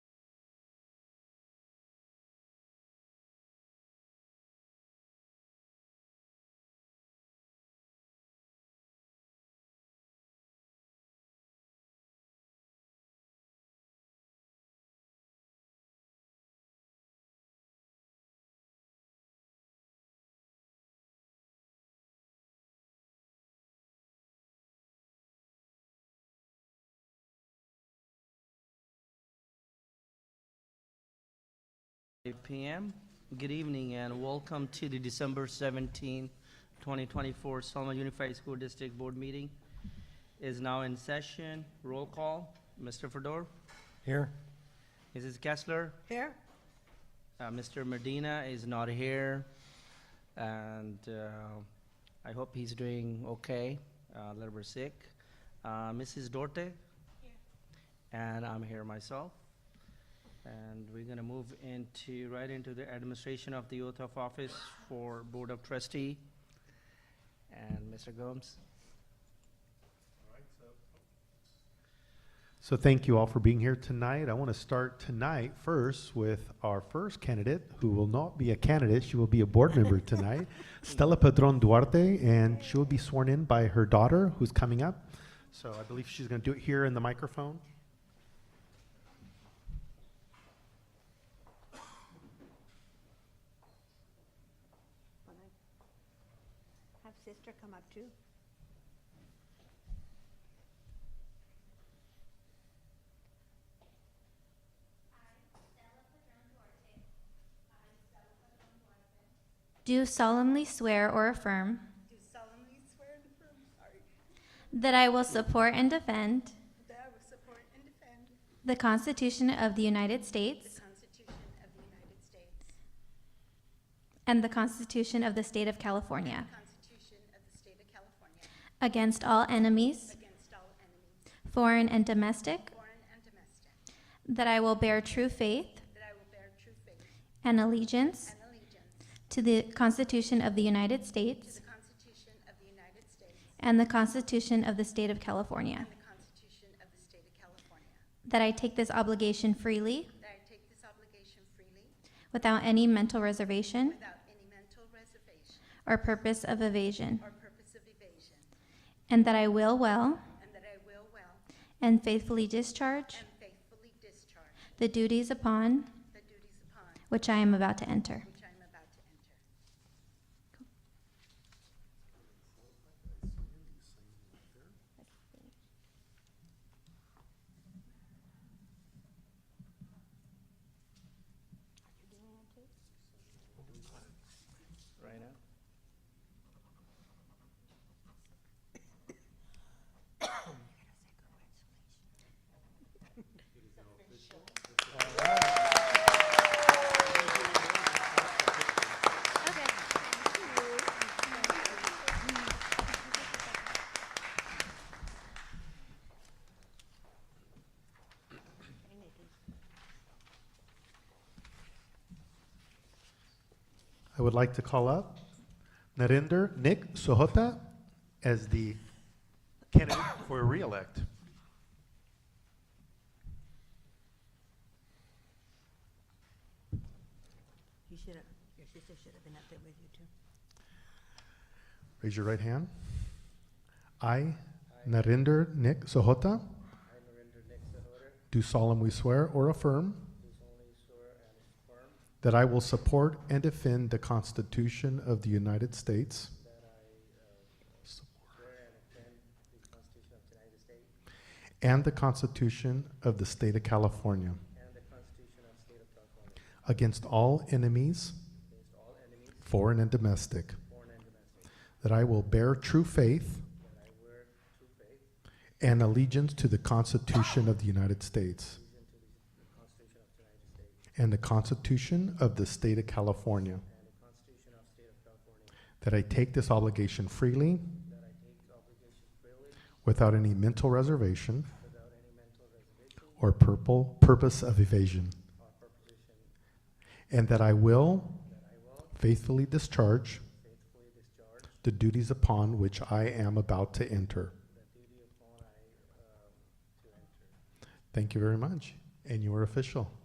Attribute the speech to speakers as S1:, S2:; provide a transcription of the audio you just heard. S1: 8 PM. Good evening and welcome to the December 17, 2024 Selma Unified School District Board Meeting is now in session. Roll call, Mr. Fedor,
S2: Here?
S1: Mrs. Kessler,
S3: Here?
S1: uh, Mr. Medina is not here. And uh, I hope he's doing okay, uh, a little bit sick. Uh, Mrs. Dorte? And I'm here myself. And we're gonna move into, right into the administration of the oath of office for Board of Trustee. And Mr. Gomes?
S2: So thank you all for being here tonight. I want to start tonight first with our first candidate, who will not be a candidate, she will be a board member tonight, Stella Padron Duarte, and she will be sworn in by her daughter, who's coming up. So I believe she's going to do it here in the microphone.
S3: Have sister come up too.
S4: Do solemnly swear or affirm
S5: Do solemnly swear and affirm, sorry,
S4: that I will support and defend
S5: that I will support and defend
S4: the Constitution of the United
S5: the
S4: States
S5: Constitution of the United States,
S4: and the Constitution of the State of California
S5: the Constitution of the State of California,
S4: against all enemies,
S5: against all enemies,
S4: foreign and domestic,
S5: foreign and domestic,
S4: that I will bear true faith
S5: that I will bear true faith
S4: and allegiance
S5: and allegiance
S4: to the Constitution of the United
S5: to
S4: States
S5: the Constitution of the United States
S4: and the Constitution of the State of
S5: and
S4: California,
S5: the Constitution of the State of California,
S4: that I take this obligation freely
S5: that I take this obligation freely
S4: without any mental reservation
S5: without any mental reservation
S4: or purpose of evasion,
S5: or purpose of evasion,
S4: and that I will well
S5: and that I will well
S4: and faithfully discharge
S5: and faithfully discharge
S4: the duties upon
S5: the duties upon
S4: which I am about to enter.
S5: which I am about to enter.
S1: Right now?
S2: I would like to call up Narender Nick Sohota as the candidate for reelect.
S3: You should have, your sister should have been up there with you too.
S2: Raise your right hand. I, Narender Nick
S1: I,
S2: Sohota,
S1: Narendra Nick Sahota,
S2: do solemnly swear or affirm
S1: do solemnly swear and affirm
S2: That I will support and defend the Constitution of the United States
S1: that I swear and defend the Constitution of the United States
S2: and the Constitution of the State of California
S1: and the Constitution of the State of California
S2: against all enemies,
S1: against all enemies,
S2: foreign and domestic.
S1: foreign and domestic,
S2: That I will bear true faith
S1: that I wear true faith
S2: and allegiance to the Constitution of the United
S1: and to the Constitution
S2: States
S1: of the United States
S2: and the Constitution of the State of California.
S1: and the Constitution of the State of California,
S2: That I take this obligation freely
S1: that I take the obligation freely
S2: without any mental reservation
S1: without any mental reservation
S2: or purple purpose of evasion.
S1: or proposition,
S2: And that I will
S1: that I will
S2: faithfully discharge
S1: faithfully discharge
S2: the duties upon which I am about to enter.
S1: the duty upon I, um, to enter.
S2: Thank you very much. And you are official.